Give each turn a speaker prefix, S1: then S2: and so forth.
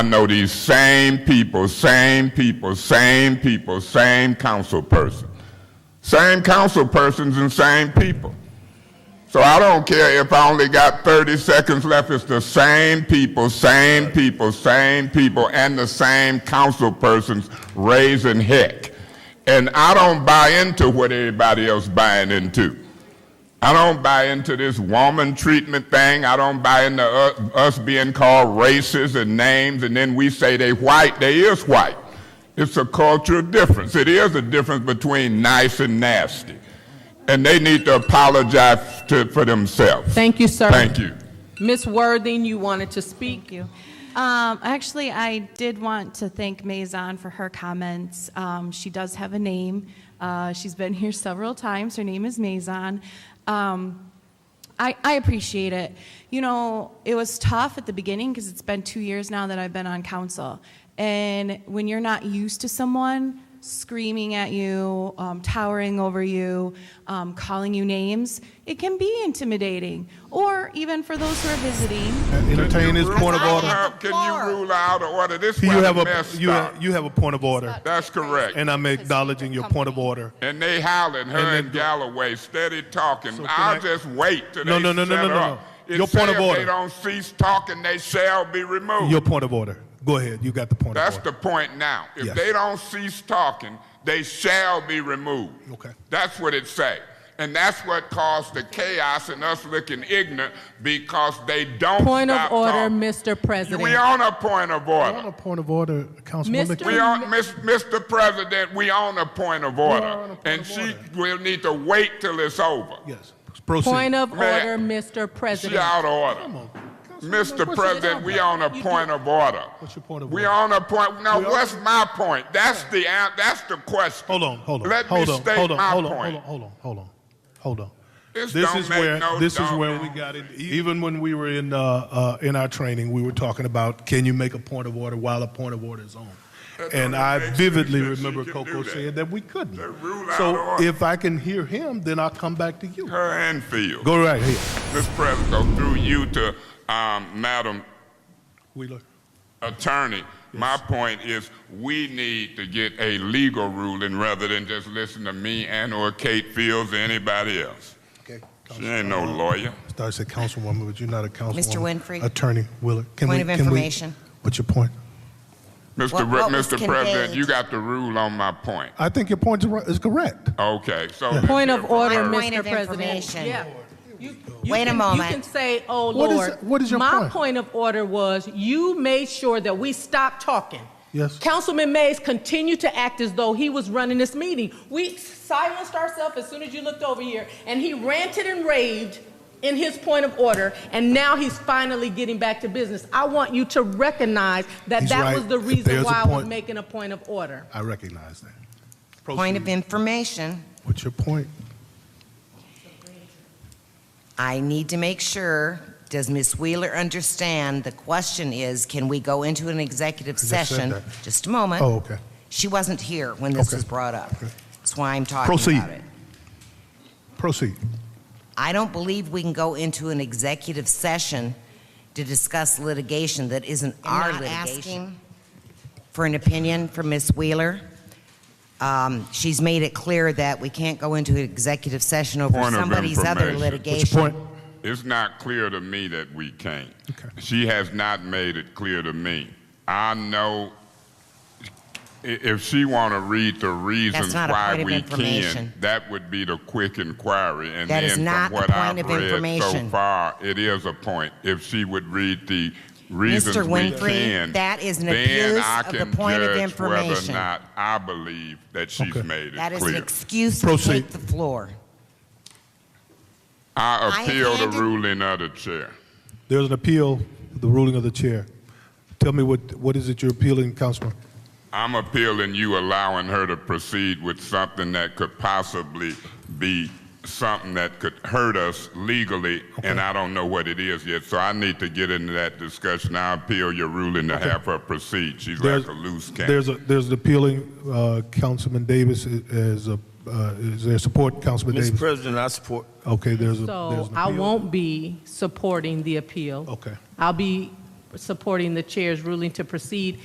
S1: I know these same people, same people, same people, same council person. Same council persons and same people. So I don't care if I only got 30 seconds left, it's the same people, same people, same people, and the same council persons raising heck. And I don't buy into what everybody else buying into. I don't buy into this woman treatment thing. I don't buy into u- us being called races and names, and then we say they white. They is white. It's a cultural difference. It is a difference between nice and nasty, and they need to apologize to, for themselves.
S2: Thank you, sir.
S1: Thank you.
S2: Ms. Worthing, you wanted to speak?
S3: Thank you. Um, actually, I did want to thank Maison for her comments. Um, she does have a name. Uh, she's been here several times. Her name is Maison. Um, I, I appreciate it. You know, it was tough at the beginning because it's been two years now that I've been on council. And when you're not used to someone screaming at you, um, towering over you, um, calling you names, it can be intimidating. Or even for those who are visiting,
S4: Entertain his point of
S1: Rule
S4: order.
S1: out- Can you rule out of order? This
S4: You
S1: one
S4: have a,
S1: messed
S4: you,
S1: up.
S4: you have a point of order,
S1: That's correct.
S4: and I'm acknowledging your point of order.
S1: And they howling, her
S4: And
S1: and,
S4: then-
S1: Galloway, steady talking.
S4: So can
S1: I'll
S4: I-
S1: just wait till
S4: No,
S1: they
S4: no, no, no,
S1: shut
S4: no, no,
S1: up.
S4: no.
S1: It
S4: Your point
S1: say
S4: of
S1: if They
S4: order.
S1: don't cease talking, they shall be removed.
S4: Your point of order. Go ahead. You got the point
S1: That's
S4: of order.
S1: the point now. If
S4: Yes.
S1: they don't cease talking, they shall be removed.
S4: Okay.
S1: That's what it say. And that's what caused the chaos and us looking ignorant because they don't
S2: Point of
S1: stop
S2: order,
S1: talking.
S2: Mr. President.
S1: We on a point of
S5: On
S1: order.
S5: a point of order, Councilwoman
S2: Mr.
S1: We
S5: King,
S1: on, Miss- Mr. President, we on a point of
S5: on a
S1: order.
S5: point
S1: And
S5: of
S1: she
S5: order.
S1: will need to wait till it's over.
S4: Yes. Proceed.
S2: Point of
S1: Ma'am.
S2: order, Mr.
S1: She
S2: President.
S1: out of order. Mr. President, we on a point of order.
S4: What's your point of
S1: We
S4: order?
S1: on a point, now what's my point? That's the, an- that's the question.
S4: Hold on, hold on,
S1: Let me
S4: hold on,
S1: state
S4: hold on,
S1: my
S4: hold on,
S1: point.
S4: hold on, hold on, hold on, hold on.
S1: This
S4: This
S1: don't
S4: is
S1: make
S4: where
S1: no
S4: this is
S1: doggone-
S4: where we got it. Even when we were in uh, uh, in our training, we were talking about can you make a point of order while a point of order is on. And
S1: don't
S4: I
S1: make sense
S4: vividly
S1: that she
S4: remember
S1: can do
S4: Coco
S1: that.
S4: saying that we couldn't.
S1: They rule out
S4: So
S1: order.
S4: if I can hear him, then I'll come back to you.
S1: Her and Field.
S4: Go right here,
S1: Mr. President, through you to, um, Madam
S4: Wheeler.
S1: attorney, my point is we need to get a legal ruling rather than just listen to me and or Kate Fields or anybody else.
S4: Okay.
S1: She ain't no lawyer.
S4: I said councilwoman, but you're not a councilwoman.
S6: Mr. Winfrey.
S4: Attorney Wheeler. Can
S6: Point
S4: we-
S6: of
S4: can we-
S6: information.
S4: What's your point?
S1: Mr.
S6: What-
S1: Re-
S6: what was
S1: Mr. President,
S6: conveyed?
S1: you got the rule on my point.
S4: I think your point is ri- is correct.
S1: Okay, so.
S2: Point
S1: let's
S2: of
S1: hear
S2: order,
S1: from her.
S6: Point
S2: Mr.
S6: of
S2: President.
S6: information.
S2: Yeah. You- you
S6: Wait a
S2: can-
S6: moment.
S2: You can say, oh,
S4: What is-
S2: Lord.
S4: what is your
S2: My
S4: point?
S2: point of order was you made sure that we stopped talking.
S4: Yes.
S2: Councilman Mays continued to act as though he was running this meeting. We silenced ourselves as soon as you looked over here, and he ranted and raved in his point of order, and now he's finally getting back to business. I want you to recognize that
S4: He's
S2: that
S4: right.
S2: was the
S4: If
S2: reason
S4: there's a
S2: why I was
S4: point-
S2: making a point of order.
S4: I recognize that.
S6: Point of information,
S4: What's your point?
S6: I need to make sure, does Ms. Wheeler understand, the question is, can we go into an executive
S4: just said
S6: session?
S4: that.
S6: Just a moment.
S4: Oh, okay.
S6: She wasn't here when this
S4: Okay.
S6: was brought up.
S4: Okay.
S6: That's why I'm talking
S4: Proceed.
S6: about it.
S4: Proceed.
S6: I don't believe we can go into an executive session to discuss litigation that isn't our litigation. For an opinion from Ms. Wheeler. Um, She's made it clear that we can't go into an executive session over
S1: Point of
S6: somebody's
S1: information.
S6: other
S4: What's your
S6: litigation.
S4: point?
S1: It's not clear to me that we can't.
S4: Okay.
S1: She has not made it clear to me. I know i- if she want to read the reasons
S6: not a
S1: why
S6: point of
S1: we can,
S6: information.
S1: that would be the quick inquiry. And
S6: That
S1: then
S6: is not
S1: from
S6: a
S1: what
S6: point
S1: I've
S6: of
S1: read so
S6: information.
S1: far, it is a point. If she would read the reasons
S6: Mr.
S1: we
S6: Winfrey,
S1: can,
S6: that is an
S1: then
S6: abuse
S1: I
S6: of the
S1: can
S6: point of
S1: judge whether or
S6: information.
S1: not I believe that she's
S4: Okay.
S1: made it
S6: That is an
S1: clear.
S6: excuse to
S4: Proceed.
S6: take the floor.
S1: I
S6: have
S1: appeal the
S6: handed-
S1: ruling of the chair.
S4: There's an appeal, the ruling of the chair. Tell me what, what is it you're appealing, Councilman?
S1: I'm appealing you allowing her to proceed with something that could possibly be something that could hurt us legally, and I don't know what it is yet, so I need to get into that discussion. I appeal your ruling to have her proceed. She's
S4: There's-
S1: like a loose cannon.
S4: There's a, there's an appealing, uh, Councilman Davis is a, uh, is there support, Councilman
S7: Mr.
S4: Davis?
S7: President, I support.
S4: Okay, there's a, there's
S2: So
S4: an
S2: I
S4: appeal.
S2: won't be supporting the appeal.
S4: Okay.
S2: I'll be supporting the chair's ruling to proceed